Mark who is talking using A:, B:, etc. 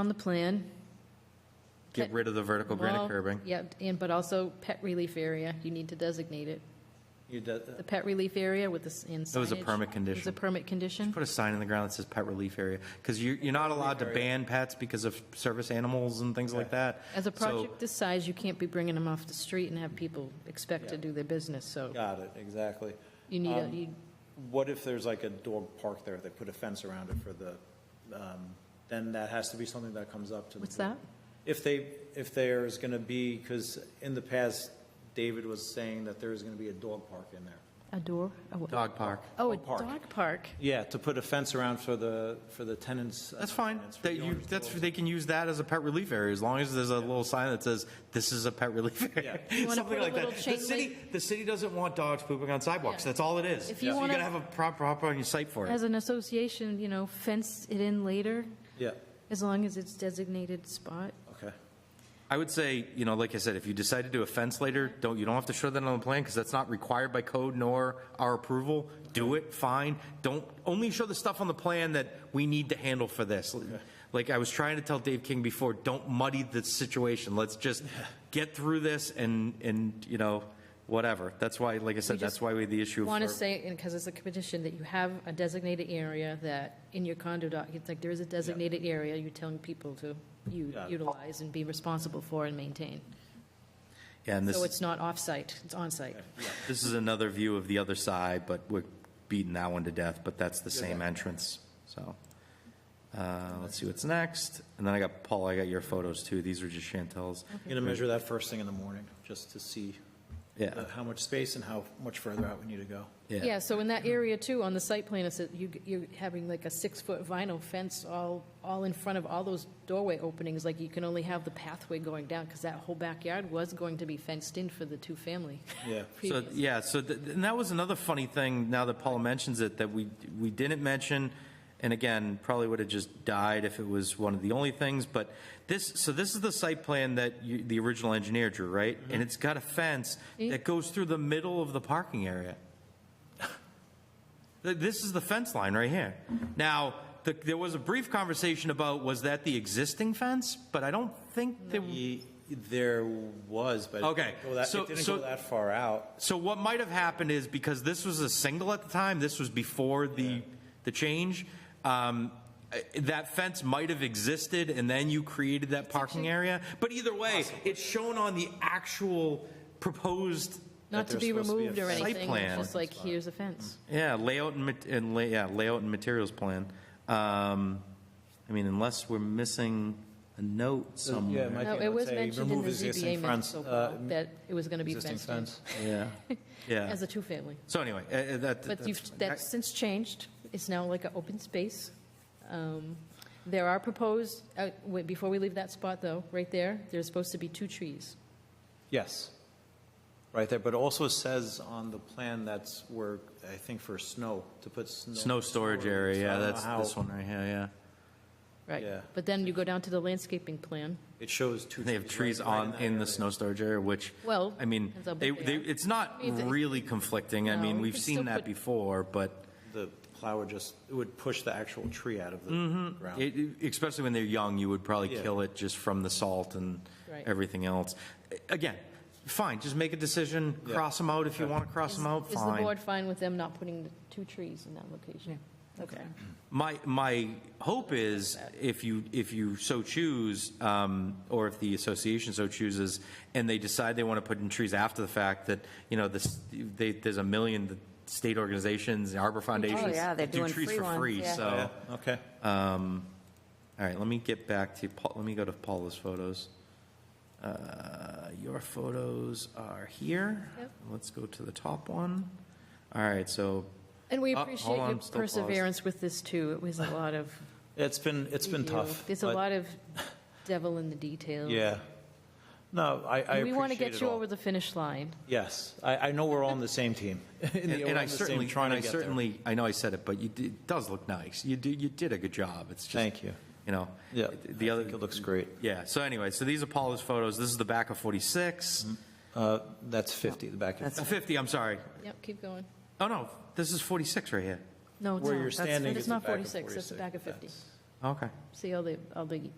A: on the plan.
B: Get rid of the vertical granite
A: Well,
B: curbing.
A: Yep, and, but also pet relief area, you need to designate it.
C: You did, uh,
A: The pet relief area with the, s- and signage.
B: That was a
A: It was
B: permit
A: a
B: condition.
A: permit condition.
B: Put a sign in the ground that says pet relief area, because you're, you're not allowed to ban pets because of service animals and things like that.
A: As a
B: So-
A: project this size, you can't be bringing them off the street and have people expect to
C: Yeah.
A: do their business, so
C: got it, exactly.
A: you need, a
C: Um,
A: you-
C: What if there's like a dog park there, they put a fence around it for the, um, then that has to be something that comes up to the.
A: what's
C: board.
A: that?
C: If they, if there's going to be, because in the past, David was saying that there's going to be a dog park in there.
A: A door? A what?
B: Dog park.
A: Oh, a
C: Dog park.
A: dog park.
C: Yeah, to put a fence around for the, for the tenants. uh,
B: That's fine.
C: tenants, for
B: That
C: the
B: you,
C: owners of
B: that's,
C: dogs.
B: they can use that as a pet relief area, as long as there's a little sign that says, this is a pet relief area.
C: Yeah.
A: You wanna put
B: Something
A: a
B: like that.
A: little chain
B: The city, the city doesn't want dogs pooping on sidewalks.
A: Yeah.
B: That's all it is.
A: If you
B: So
A: wanna-
B: gotta have a prop, prop on your site for
A: As
B: it.
A: an association, you know, fence it in later,
C: Yeah,
A: as long as it's designated spot.
C: okay.
B: I would say, you know, like I said, if you decide to do a fence later, don't, you don't have to show that on the plan, because that's not required by code nor our approval. Do it, fine. Don't, only show the stuff on the plan that we need to handle for this. Like I was trying to tell Dave King before, don't muddy the situation. Let's just get through this and, and, you know, whatever. That's why, like I said, that's
A: just
B: why we had the issue.
A: Want to
B: for-
A: say, and because it's a condition, that you have a designated area that in your condo doc, it's like there is a designated area you're telling people to u-
C: Yeah.
A: utilize and be responsible for and maintain.
B: Yeah, And
A: So
B: this,
A: it's not off-site, it's on-site.
B: this is another view of the other side, but we're beating that one to death, but that's the same entrance, so. Uh, let's see what's next. And then I got, Paul, I got your photos too. These are just Chantel's.
C: Going to measure that first thing in the morning, just to see
B: Yeah.
C: uh, how much space and how much further out we need to go.
A: Yeah, so in that area too, on the site plan, it's, that you, you're having like a six-foot vinyl fence all, all in front of all those doorway openings, like you can only have the pathway going down, because that whole backyard was going to be fenced in for the two-family.
C: Yeah.
B: So,
A: previous.
B: yeah, so, th- and that was another funny thing, now that Paul mentions it, that we, we didn't mention, and again, probably would have just died if it was one of the only things, but this, so this is the site plan that you, the original engineer drew, right? And it's got a fence that goes through the middle of the parking area. Th- This is the fence line right here. Now, the, there was a brief conversation about, was that the existing fence? But I don't think there,
C: Ye- There was, but. it
B: Okay,
C: didn't go that-
B: so-
C: It didn't
B: so-
C: go that far out.
B: So what might have happened is because this was a single at the time, this was before the, the change, um, uh, that fence might have existed and then you created that parking area. But either way, it's shown on the actual proposed,
A: Not to
C: there's
A: be
C: supposed to be a
A: removed or
C: fence.
B: Site
A: anything,
B: plan.
A: it's just like, here's a fence.
B: yeah, layout and, mat- and lay, yeah, layout and materials plan. Um, I mean, unless we're missing a note
C: Uh, Yeah,
B: somewhere.
C: it might
A: No,
C: be,
A: it
C: let's
A: was
C: say
A: mentioned in
C: remove
A: the
C: existing
A: ZBA minutes,
C: fence,
A: so
C: Um, uh,
A: Paul, that it was going to be
C: Existing
A: fenced in,
C: fence.
B: Yeah, yeah.
A: as a two-family.
B: So anyway, uh, uh, that.
A: But you've,
B: that's-
A: that's since changed, it's now like an open space. Um, There are proposed, uh, wait, before we leave that spot though, right there, there's supposed to be two trees.
C: Yes. Right there, but it also says on the plan that's where, I think for snow, to put snow.
B: Snow storage area,
C: So I
B: yeah,
C: don't know
B: that's
C: how-
B: this one right here, yeah.
A: Right.
C: Yeah.
A: But then you go down to the landscaping plan.
C: It shows two.
B: They have trees
C: right- right
B: on,
C: that
B: in
C: area.
B: the snow storage area, which,
A: Well,
B: I mean,
A: depends how
B: they,
A: big they
B: they,
A: are.
B: it's not
A: I mean, it's-
B: really conflicting. I
A: No,
B: mean,
A: you
B: we've
A: could still
B: seen that
A: put-
B: before, but
C: The plow would just, it would push the actual tree out of the ground.
B: Mm-hmm. it, it- especially when they're young, you would probably
C: Yeah.
B: kill it just from the salt and
A: Right.
B: everything else. Again, fine, just make a decision,
C: Yeah.
B: cross them out if you want to cross them out,
A: Is the
B: fine.
A: board fine with them not putting the two trees in that location? Okay.
B: My, my hope is if you, if you so choose, um, or if the association so chooses, and they decide they want to put in trees after the fact, that, you know, this, they, there's a million state organizations, Arbor Foundations.
D: Oh, yeah, they're
B: that do
D: doing
B: trees
D: free
B: for
D: ones,
B: free,
D: yeah.
B: So,
C: Yeah,
B: all
C: okay.
B: right, let me get back to, Paul. let me go to Paula's photos. Uh, Your photos are here.
A: Yep.
B: Let's go to the top one. All right, so,
A: And we
B: Uh, hold
A: appreciate
B: on,
A: your
B: I'm still paused.
A: perseverance with this too. It was a lot of.
C: It's been, it's been
A: review.
C: tough.
A: There's a
C: but-
A: lot of devil in the details.
C: Yeah. No, I, I appreciate it
A: We want to get you
C: all.
A: over the finish line.
C: Yes, I, I know we're all on the same team.
B: and and I certainly,
C: trying
B: and
C: to
B: I
C: get there.
B: certainly, I know I said it, but you, did- it does look nice. You did, you did a good job. It's just.
C: Thank you.
B: you know.
C: Yeah,
B: The
C: I
B: other,
C: think it looks great.
B: yeah, so anyway, so these are Paula's photos, this is the back of 46,
C: Uh, that's 50, the back of
B: Uh, 50, I'm sorry.
A: Yep, keep going.
B: Oh, no, this is 46 right here.
A: No, it's
C: where
A: not.
C: you're
A: That's-
C: standing
A: It's
C: is the
A: not
C: back of
A: 46, it's the back of 50.
B: Okay.
A: See all the, all the